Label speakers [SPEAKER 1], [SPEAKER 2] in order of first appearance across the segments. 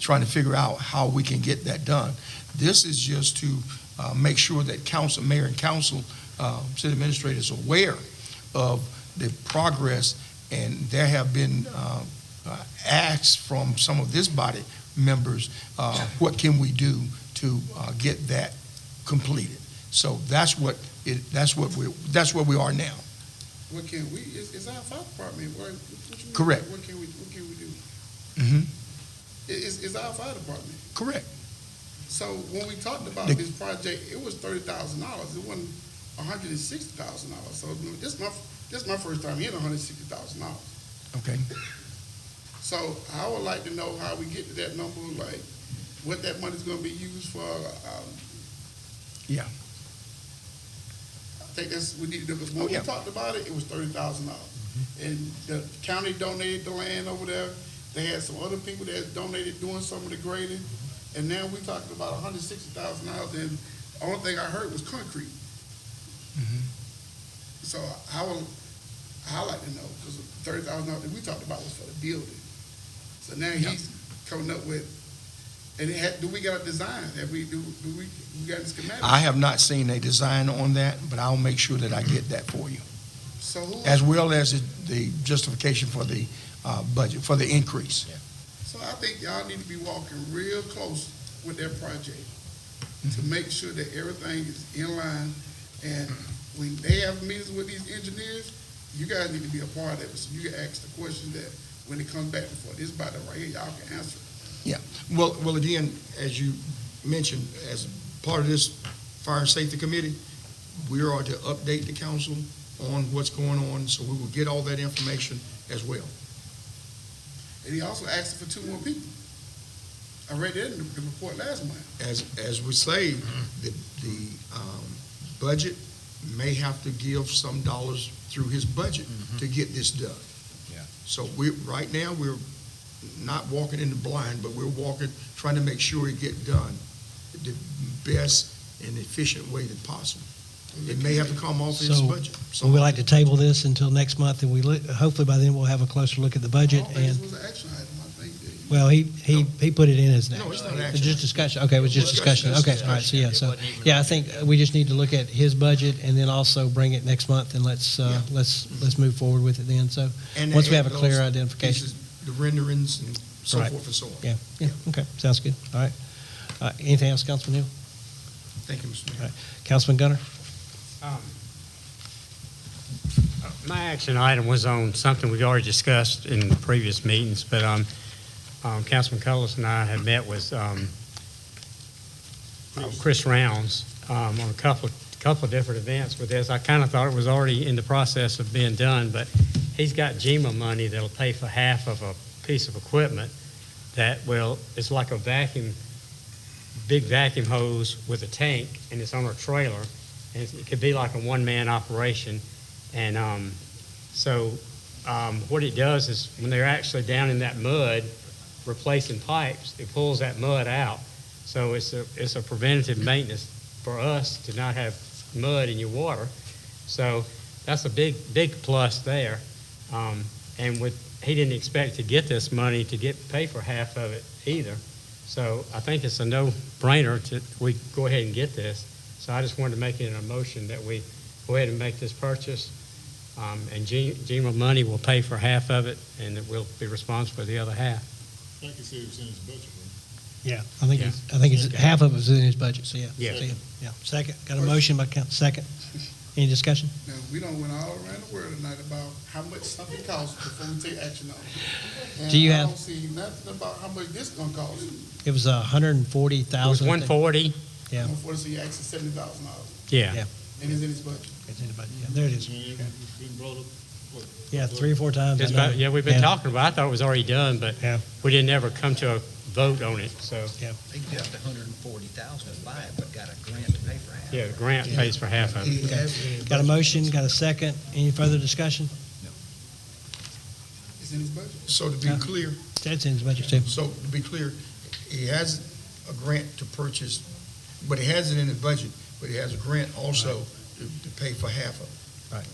[SPEAKER 1] trying to figure out how we can get that done. This is just to uh, make sure that council, mayor and council, uh, city administrator is aware of the progress, and there have been uh, uh, asks from some of this body members, uh, what can we do to uh, get that completed? So that's what, it- that's what we, that's where we are now.
[SPEAKER 2] What can we, it's, it's our fire department, what, what you mean?
[SPEAKER 1] Correct.
[SPEAKER 2] What can we, what can we do?
[SPEAKER 1] Mhm.
[SPEAKER 2] It, it's, it's our fire department.
[SPEAKER 1] Correct.
[SPEAKER 2] So when we talked about
[SPEAKER 1] The-
[SPEAKER 2] this project, it was thirty thousand dollars, it wasn't hundred and sixty thousand dollars. So you know, this my, this my first time hearing hundred and sixty thousand dollars.
[SPEAKER 1] Okay.
[SPEAKER 2] So I would like to know how we get to that number, like what that money's gonna be used for. Um,
[SPEAKER 1] Yeah.
[SPEAKER 2] I think that's, we need to, because
[SPEAKER 1] Oh,
[SPEAKER 2] when we
[SPEAKER 1] yeah.
[SPEAKER 2] talked about it, it was thirty thousand dollars. And the county donated the land over there. They had some other people that donated doing some of the grading. And now we talking about hundred sixty thousand dollars and the only thing I heard was concrete.
[SPEAKER 1] Mm-hmm.
[SPEAKER 2] So I would, I like to know, because thirty thousand dollars that we talked about was for the building. So now
[SPEAKER 1] Yeah.
[SPEAKER 2] he's coming up with, and it had, do we got a design? Have we, do, do we, we got a schematic?
[SPEAKER 1] I have not seen a design on that, but I'll make sure that I get that for you,
[SPEAKER 2] So who,
[SPEAKER 1] as well as the- the justification for the uh, budget, for the increase.
[SPEAKER 2] so I think y'all need to be walking real close with that project to make sure that everything is in line. And when they have meetings with these engineers, you guys need to be a part of it, so you can ask the question that when it comes back before this body right here, y'all can answer.
[SPEAKER 1] Well, well, again, as you mentioned, as part of this fire and safety committee, we are to update the council on what's going on, so we will get all that information as well.
[SPEAKER 2] And he also asked for two more people. I read that in the the report last month.
[SPEAKER 1] As, as we say, the, the, um, budget may have to give some dollars through his budget to get this done.
[SPEAKER 3] Yeah.
[SPEAKER 1] So we, right now, we're not walking in the blind, but we're walking, trying to make sure it get done the best and efficient way that possible. It may have to come off his
[SPEAKER 4] So,
[SPEAKER 1] budget.
[SPEAKER 4] So we'd like to table this until next month, and we, look- hopefully by then we'll have a closer look at the budget,
[SPEAKER 2] I don't think
[SPEAKER 4] and,
[SPEAKER 2] this was an action item, I think that you-
[SPEAKER 4] well, he, he, he put it in as
[SPEAKER 1] No, it's
[SPEAKER 4] next.
[SPEAKER 1] not an
[SPEAKER 4] It's
[SPEAKER 1] action.
[SPEAKER 4] just discussion, okay, it was just discussion, okay, all right, so yeah, so, yeah, I think uh, we just need to look at his budget, and then also bring it next month, and let's, uh, let's, let's move forward with it then, so,
[SPEAKER 1] And
[SPEAKER 4] once we have a
[SPEAKER 1] those
[SPEAKER 4] clear identification.
[SPEAKER 1] pieces, The renderings and so
[SPEAKER 4] Right.
[SPEAKER 1] forth and so on.
[SPEAKER 4] Yeah, yeah, okay, sounds good, all right. Uh, Anything else, Councilman Hill?
[SPEAKER 1] Thank you, Mr. Mayor.
[SPEAKER 4] Right. Councilman Gunner?
[SPEAKER 5] Um, uh, My action item was on something we already discussed in previous meetings, but um, um, Councilman Cullis and I had met with um, uh, Chris Rounds um, on a couple, couple of different events with this. I kind of thought it was already in the process of being done, but he's got GMA money that'll pay for half of a piece of equipment that will, it's like a vacuum, big vacuum hose with a tank, and it's on a trailer, and it could be like a one-man operation. And um, so um, what it does is when they're actually down in that mud replacing pipes, it pulls that mud out. So it's a, it's a preventative maintenance for us to not have mud in your water. So that's a big, big plus there. Um, and with, he didn't expect to get this money to get, pay for half of it either. So I think it's a no-brainer to, we go ahead and get this. So I just wanted to make it a motion that we go ahead and make this purchase. Um, and G, GMA money will pay for half of it and that we'll be responsible for the other half.
[SPEAKER 6] Like you said, it was in his budget, right?
[SPEAKER 4] Yeah. I think, it's- I think it's, half of it was in his budget, so yeah.
[SPEAKER 5] Yeah.
[SPEAKER 4] So, Yeah, second, got a motion by count, second. Any discussion?
[SPEAKER 2] Now, we don't went all around the world tonight about how much something costs before we take action on it. And
[SPEAKER 4] Do you
[SPEAKER 2] I
[SPEAKER 4] have-
[SPEAKER 2] don't see nothing about how much this gonna cost,
[SPEAKER 4] It was a hundred and forty
[SPEAKER 5] It was
[SPEAKER 4] thousand.
[SPEAKER 5] one forty,
[SPEAKER 4] Yeah.
[SPEAKER 2] before you ask for seventy thousand dollars,
[SPEAKER 5] yeah.
[SPEAKER 4] Yeah.
[SPEAKER 2] and it's in his budget.
[SPEAKER 4] It's in the budget, yeah, there it is.
[SPEAKER 6] And it- it's been brought up, what?
[SPEAKER 4] Yeah, three or four times. I
[SPEAKER 5] It's about,
[SPEAKER 4] know.
[SPEAKER 5] yeah, we've been talking about, it. I thought it was already done, but
[SPEAKER 4] Yeah.
[SPEAKER 5] we didn't ever come to a vote on it, so,
[SPEAKER 7] They got a hundred and forty thousand to buy it, but got a grant to pay for half.
[SPEAKER 5] yeah, the grant pays for half of it.
[SPEAKER 4] Got a motion, got a second, any further discussion?
[SPEAKER 2] It's in his budget.
[SPEAKER 1] So to be
[SPEAKER 4] Yeah.
[SPEAKER 1] clear,
[SPEAKER 4] That's in his budget too.
[SPEAKER 1] so to be clear, he has a grant to purchase, but he has it in his budget, but he has a grant also to, to pay for half of it.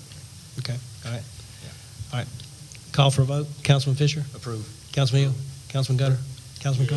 [SPEAKER 4] Okay, all right. All right, call for a vote, Councilman Fisher,
[SPEAKER 7] Approved.
[SPEAKER 4] Councilman Hill, Councilman Gunner, Councilman Combs?